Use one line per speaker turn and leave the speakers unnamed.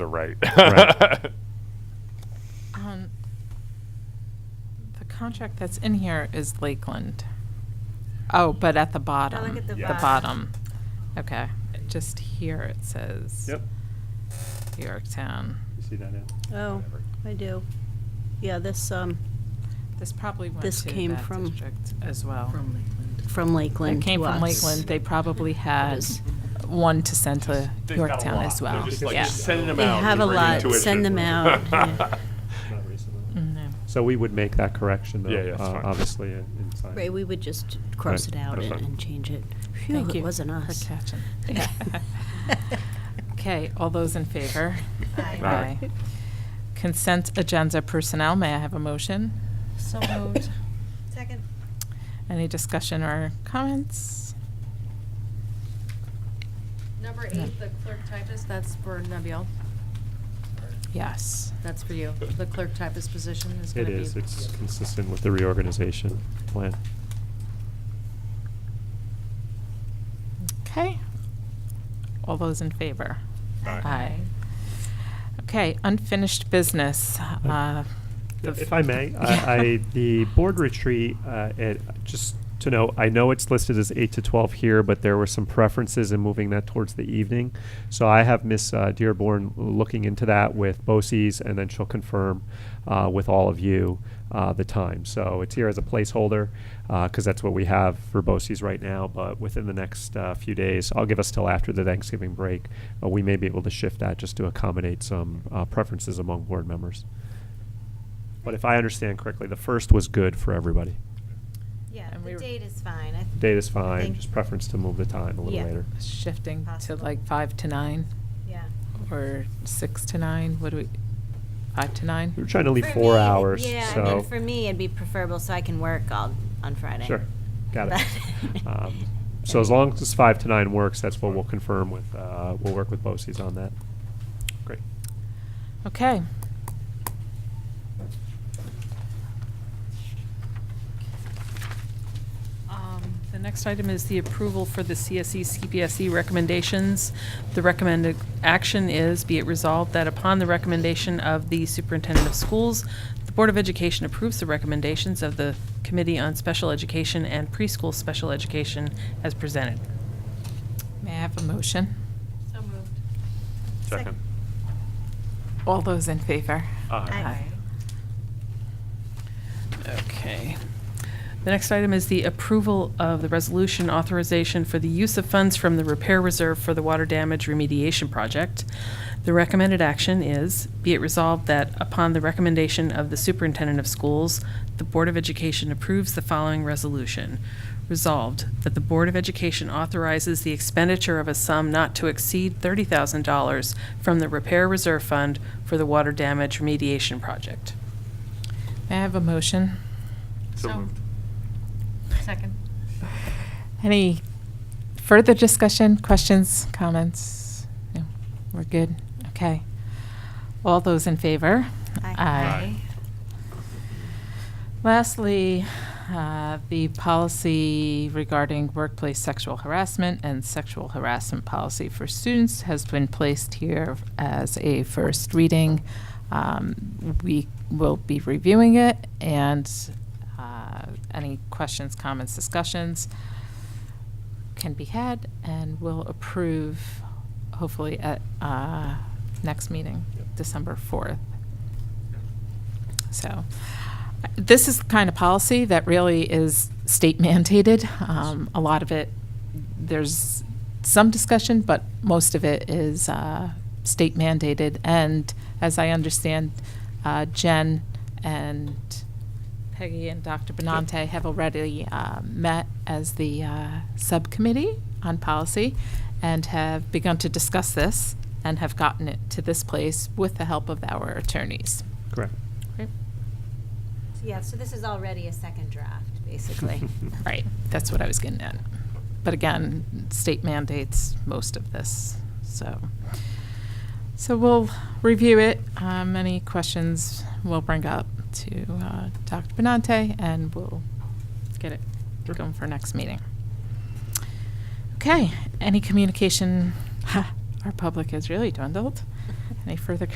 the right.
Right.
Um, The contract that's in here is Lakeland. Oh, but at the bottom.
at the
Yeah.
bottom. Okay, just here it says.
Yep,
Yorktown.
you see that, yeah.
Oh, I do. Yeah, this, um,
This probably went
This
to
came
that
from-
district as well.
from Lakeland.
It came
to
from
us.
Lakeland. They probably had
is-
one to send to
They've got a
Yorktown
lot.
as
They're
well.
just like,
Yeah.
just send them
They
out.
have
They
a
bring
lot.
intuition.
Send them out, yeah.
Not recently.
Mm,
Mhm.
So we would make that correction, though,
Yeah, yeah, it's
uh,
fine.
obviously, and and sign.
Right, we would just cross
Right,
it out
that's
and
fine.
and change it. Phew,
Thank you
it wasn't us.
for catching. Yeah. Okay, all those in favor?
Aye.
Aye. Consent agenda personnel, may I have a motion?
So moved. Second.
Any discussion or comments?
Number eight, the clerk typist, that's for Nabil.
Yes.
That's for you. The clerk typist position is going
It
to be.
is, it's consistent with the reorganization plan.
Okay. All those in favor?
Aye.
Okay, unfinished business. uh, the f-
If I may, I, I, the board retreat, uh, it, just to know, I know it's listed as eight to twelve here, but there were some preferences in moving that towards the evening. So I have Miss uh, Dearborn looking into that with BOCES, and then she'll confirm, uh, with all of you, uh, the time. So it's here as a placeholder, uh, cause that's what we have for BOCES right now, but within the next, uh, few days, I'll give us till after the Thanksgiving break, uh, we may be able to shift that just to accommodate some, uh, preferences among board members. But if I understand correctly, the first was good for everybody.
Yeah,
And we
the
were-
date is fine. I-
Date is
I
fine,
think-
just preference to move the time a little
Yeah.
later.
Shifting to
Possible.
like five to nine
Yeah.
or six to nine, what do we, five to nine?
We were trying to leave
For
four
me,
hours,
Yeah, I mean,
so.
for me, it'd be preferable so I can work all, on Friday.
Sure, got it.
But-
Um, So as long as five to nine works, that's what we'll confirm with, uh, we'll work with BOCES on that. Great.
Okay.
Um, The next item is the approval for the E, CSE CPSE recommendations. The recommended action is, be it resolved that upon the recommendation of the superintendent of schools, the Board of Education approves the recommendations of the Committee on Special Education and Preschool Special Education as presented.
May I have a motion?
So moved.
Second.
All those in favor?
Aye.
Okay. The next item is the approval of the resolution authorization for the use of funds from the repair reserve for the water damage remediation project. The recommended action is, be it resolved that upon the recommendation of the superintendent of schools, the Board of Education approves the following resolution. Resolved, that the Board of Education authorizes the expenditure of a sum not to exceed thirty thousand dollars from the repair reserve fund for the water damage remediation project.
May I have a motion?
So moved. Second.
Any further discussion, questions, comments? No, we're good, okay. All those in favor?
Aye.
Lastly, uh, the policy regarding workplace sexual harassment and sexual harassment policy for students has been placed here as a first reading. Um, We will be reviewing it, and uh, any questions, comments, discussions can be had, and we'll approve hopefully at uh, next meeting, December 4th. So I- this is the kind of policy that really is state mandated. Um, A lot of it, there's some discussion, but most of it is uh, state mandated. And as I understand, uh, Jen and Peggy and Dr. Benante have already uh, met as the uh, subcommittee on policy and have begun to discuss this and have gotten it to this place with the help of our attorneys.
Correct.
Yeah, so this is already a second draft, basically.
Right, that's what I was getting at. But again, state mandates most of this, so. So we'll review it. Um, any questions we'll bring up to, uh, Dr. Benante and we'll get it going for next meeting. Okay, any communication, ha, our public has really dwindled. Any further